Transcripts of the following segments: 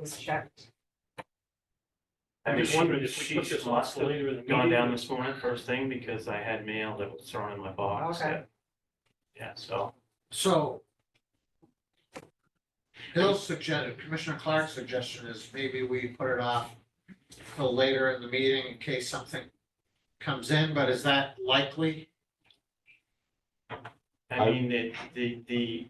was checked. I'm just She- wondering if we put she's this on for later in the Gone down meeting. this morning first thing because I had mail that was thrown in my box. Okay. that- Yeah, so So. Bill's suggestion, Commissioner Clark's suggestion is maybe we put it off till later in the meeting in case something comes in, but is that likely? I I- mean, the, the, the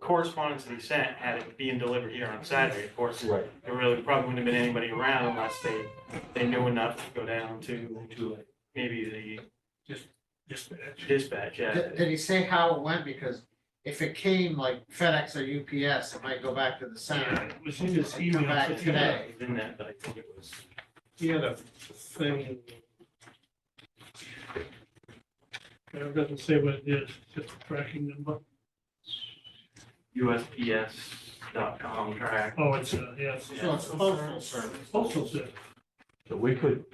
correspondence that he sent had it being delivered here on Saturday. Of course, Right. there really probably wouldn't have been anybody around unless they, they knew enough to go down to, to maybe uh, the Dispatch. dispatch, yeah. Did, did he say how it went? Because if it came like FedEx or UPS, it might go back to the Yeah, center. It was in his Come email. back but he today. It was in that, but I think it was, He had a thing. And It doesn't say what it is, it's just a tracking number. USPS.com track. Oh, it's, uh, yeah, it's So it's postal service. postal service. So we could,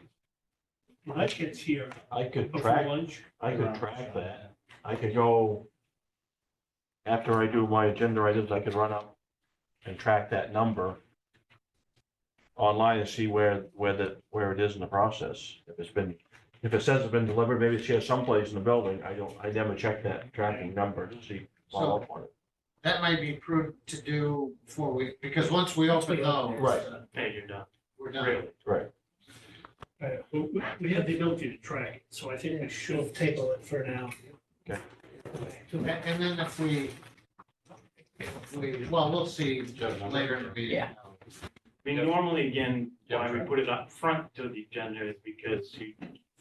When I get here I could before track, lunch, I could track that. I could go. After I do my agenda items, I could run up and track that number. Online and see where, where the, where it is in the process. If it's been, if it says it's been delivered, maybe it's here someplace in the building. I don't, I never check that tracking number to see. follow up on it. That might be prudent to do before we, because once we open those. Right. Hey, you're done, We're done. really. uh, we, we have the ability to track it, so I think we We'll should. table it for now. And, and then if we, if we, well, we'll see later in the meeting. Yeah. I mean, normally, again, Yeah. why we put it up front to the agenda is because you,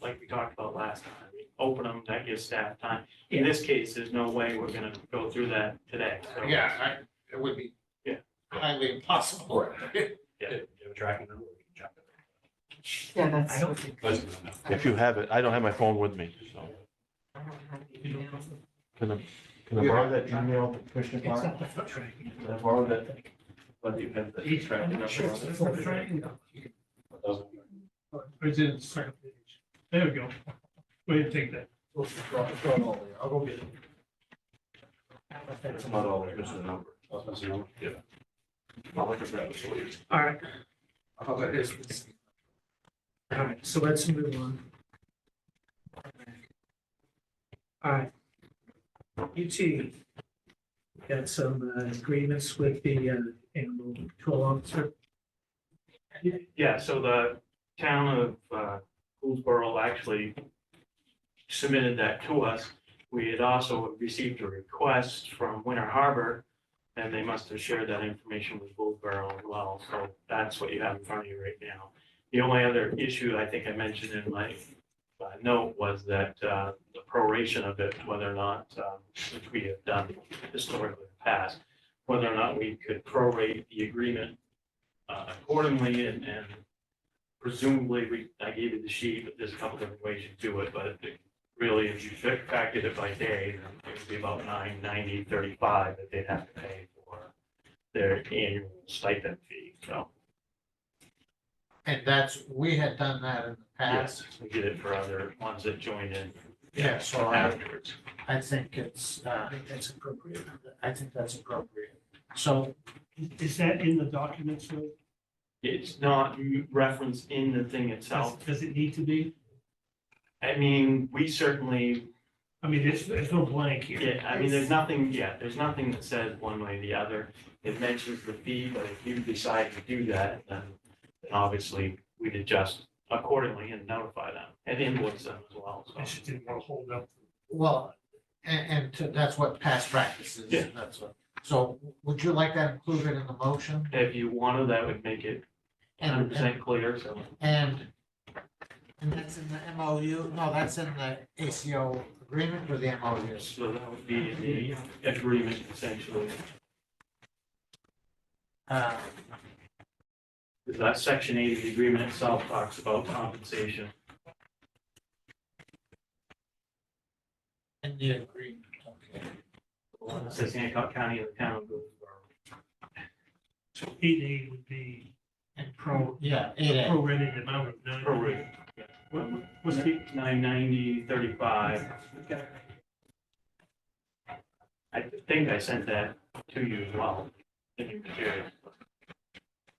like we talked about last time, we open them, that gives staff time. In this case, there's no way we're gonna go through that today, so. Yeah, I, it would be. Yeah. Highly impossible. Yeah, that's. I don't think. If you have it, I don't have my phone with me, so. I don't have the email. Can I, can I borrow that email, Commissioner It's Clark? not the foot tracking. Can I borrow that? But you have the I'm track not sure it's the number. foot tracking. Oh, It's in the second page. There we go. We didn't take that. I'll go get it. I don't know if that's It's a- not all, it's the number. Yeah. I'll look at that. All right, Oh, it is. all right, so let's move on. All right. UT. Got some uh, agreements with the uh, animal control officer. Yeah, so the town of uh, Poolsboro actually submitted that to us. We had also received a request from Winter Harbor, and they must have shared that information with Poolsboro as well. So that's what you have in front of you right now. The only other issue I think I mentioned in my uh, note was that uh, the proration of it, whether or not, um, which we have done historically in the past, whether or not we could prorate the agreement uh, accordingly and, and presumably, we, I gave you the sheet, but there's a couple different ways you do it, but it- really, if you fac- factored it by day, then it would be about nine ninety thirty-five that they'd have to pay for their annual stipend fee, so, And that's, we had done that in the past. yes, we did it for other ones that joined in Yeah, so I, afterwards. I think it's, I uh, think that's appropriate. I think that's appropriate. So, Is that in the documents, Lou? It's not referenced in the thing Does, itself. does it need to be? I mean, we certainly I mean, there's, there's no blank here. Yeah, I mean, there's nothing, yeah, there's nothing that says one way or the other. It mentions the fee, but if you decide to do that, then then obviously we'd adjust accordingly and notify them and invoice them as well, I so. just didn't want to hold up. well, and, and to- that's what past practice is. Yeah. That's what, so would you like that included in the motion? If you wanted, that would make it hundred And- percent clear, so. And, and that's in the MOU, no, that's in the ACO agreement with the MOU. So that would be in the agreement essentially. Uh, Because that section eight of the agreement itself talks about compensation. in the agreement, okay. The one that says Hancock County and the town of Goldsboro. So eight A would be And pro, yeah, eight A. prorated amount of nine. Prorated. What, what's the, Nine ninety thirty-five. I think I sent that to you as well. in your material.